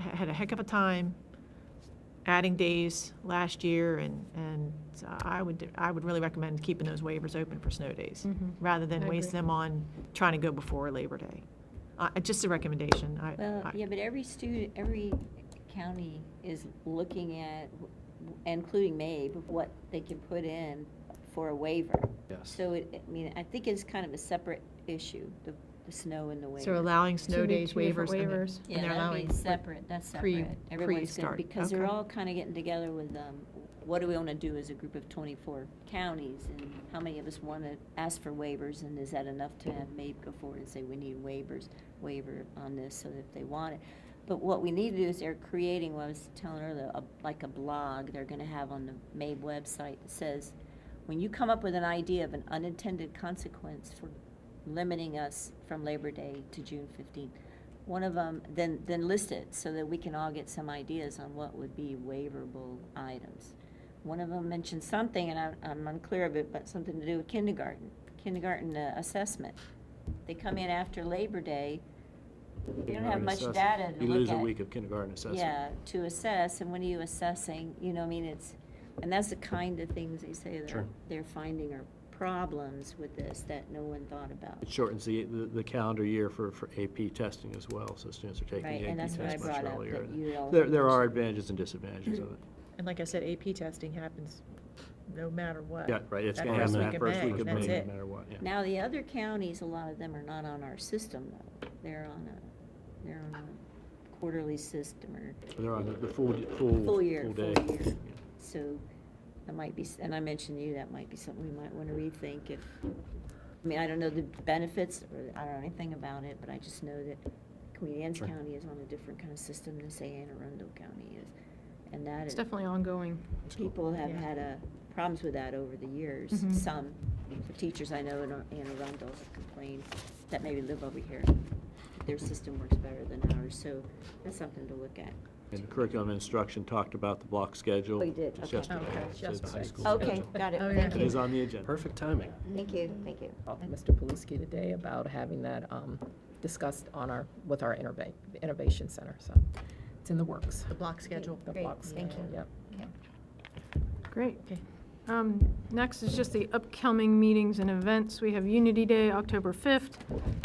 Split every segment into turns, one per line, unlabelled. had a heck of a time adding days last year, and, and uh, I would, I would really recommend keeping those waivers open for snow days,
Mhm.
rather
I
than waste
agree.
them on trying to go before Labor Day. Uh, Just a recommendation. I-
Well,
I-
yeah, but every student, every county is looking at, including MABE, what they can put in for a waiver.
Yes.
So it, I mean, I think it's kind of a separate issue, the, the snow and the waiver.
So allowing
Two
snow
week-
days
two different
waivers. and then-
waivers.
and
Yeah,
they're
that'd be
allowing-
separate, that's
pre-
separate. Everyone's gonna,
pre-start,
because they're
okay.
all kind of getting together with, um, what do we want to do as a group of twenty-four counties? And how many of us want to ask for waivers, and is that enough to have MAPE go forward and say, we need waivers, waiver on this, so that if they want it? But what we need to do is they're creating, what I was telling earlier, a- like a blog they're gonna have on the MAPE website that says, when you come up with an idea of an unintended consequence for limiting us from Labor Day to June fifteenth, one of them, then, then list it so that we can all get some ideas on what would be waiverable items. One of them mentioned something, and I- I'm unclear of it, but something to do with kindergarten, kindergarten uh, assessment. They come in after Labor Day, they don't have
Kindergarten
much
assess-
data to
You lose
look
a
at.
week of kindergarten assessment.
Yeah, to assess, and when are you assessing, you know, I mean, it's, and that's the kind of things they say that
Sure.
they're finding are problems with this that no one thought about.
It shortens the, the the calendar year for, for AP testing as well, so students are taking
Right,
the
and
AP
that's what I
test much
brought up,
earlier.
that you all
There, there are
mentioned.
advantages and disadvantages of it.
And like I said, AP testing happens no matter what.
Yeah, right, it's
That
gonna
first
happen
week
that
of
first
May,
week of May,
that's
no
it.
matter what, yeah.
Now, the other counties, a lot of them are not on our system, though. They're on a, they're on a quarterly system or,
They're on the- the full, full.
Full year,
day.
full year.
Yeah.
so that might be, s- and I mentioned to you, that might be something we might want to rethink if, I mean, I don't know the benefits, or I don't know anything about it, but I just know that Queen Anne's
Sure.
County is on a different kind of system than, say, Anne Arundel County is. And that
It's
is,
definitely ongoing.
people have
Yeah.
had uh, problems with that over the years.
Mhm.
Some, the teachers I know in Ar- Anne Arundel have complained that maybe live over here. Their system works better than ours, so that's something to look at.
And curriculum instruction talked about the block schedule.
Oh, you did,
just
okay.
yesterday,
Okay,
so it's
just
high
right.
school
Okay,
schedule.
got it,
Oh, yeah.
thank
It is
you.
on the agenda.
Perfect timing.
Thank you, thank you.
Talked to Mr. Paluski today about having that um, discussed on our, with our Innovate- Innovation Center, so it's in the works.
The block schedule.
The
Great,
blocks.
thank you.
Yep.
Great.
Okay.
Um, Next is just the upcoming meetings and events. We have Unity Day, October 5th,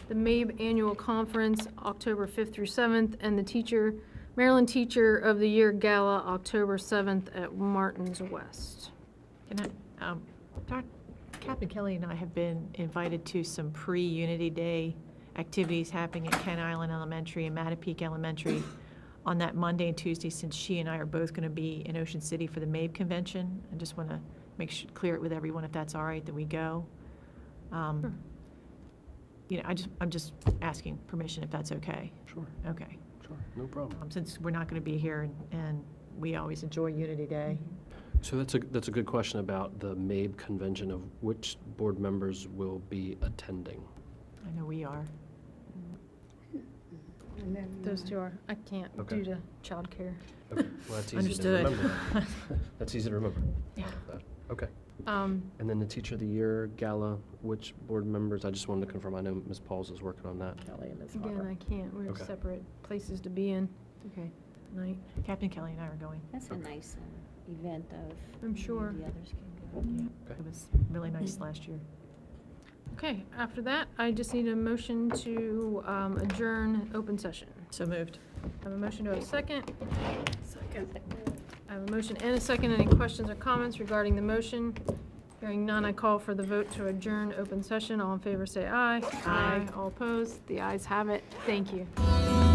the MABE E Annual Conference, October 5th through 7th, and the Teacher, Maryland Teacher of the Year Gala, October 7th at Martin's West.
Can I, um, Doc- Captain Kelly and I have been invited to some pre-Unity Day activities happening at Kent Island Elementary and Mattapique Elementary on that Monday and Tuesday, since she and I are both going to be in Ocean City for the MAB convention. I just want to make sure, clear it with everyone if that's all right, that we go. Um,
Sure.
You know, I just, I'm just asking permission if that's okay.
Sure,
Okay.
sure, no
Oh.
problem.
Um, Since we're not going to be here and- and we always enjoy Unity Day.
So that's a, that's a good question about the MABE convention of which board members will be attending.
I know we are.
Those two are, I can't
Okay.
due to childcare.
Okay, well, that's easy to
Understood.
remember. That's easy to remember.
Yeah.
Okay.
Um,
And then the Teacher of the Year Gala, which board members, I just wanted to confirm, I know Ms. Pauls is working on that.
Kelly and Ms.
Again,
Hopper.
I can't, we're
Okay.
separate places to be in
Okay.
tonight.
Captain Kelly and I are going.
That's a nice um, event of.
I'm sure.
The others can go.
Yeah,
Okay.
it was really nice last year.
Okay, after that, I just need a motion to um, adjourn open session.
So moved.
I have a motion to a second. Second. I have a motion and a second. Any questions or comments regarding the motion? Hearing none, I call for the vote to adjourn open session. All in favor, say aye.
Aye.
All opposed? The ayes have it. Thank you.